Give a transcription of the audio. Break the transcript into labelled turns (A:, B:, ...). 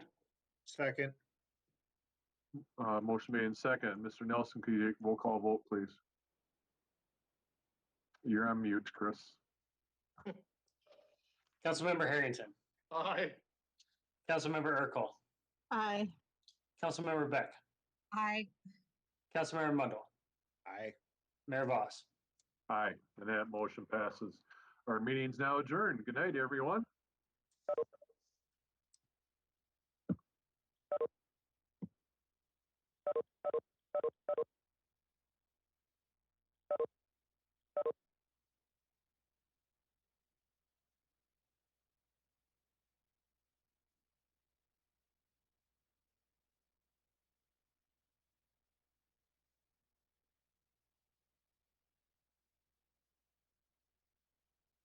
A: Second,
B: Uh, motion made in second. Mr. Nelson, could you take roll call vote, please? You're on mute, Chris.
C: Councilmember Harrington,
D: Aye.
C: Councilmember Urkel,
E: Aye.
C: Councilmember Beck,
E: Aye.
C: Councilmember Mundle,
A: aye.
C: Mayor Voss.
B: Aye, and that motion passes. Our meeting's now adjourned. Good night, everyone.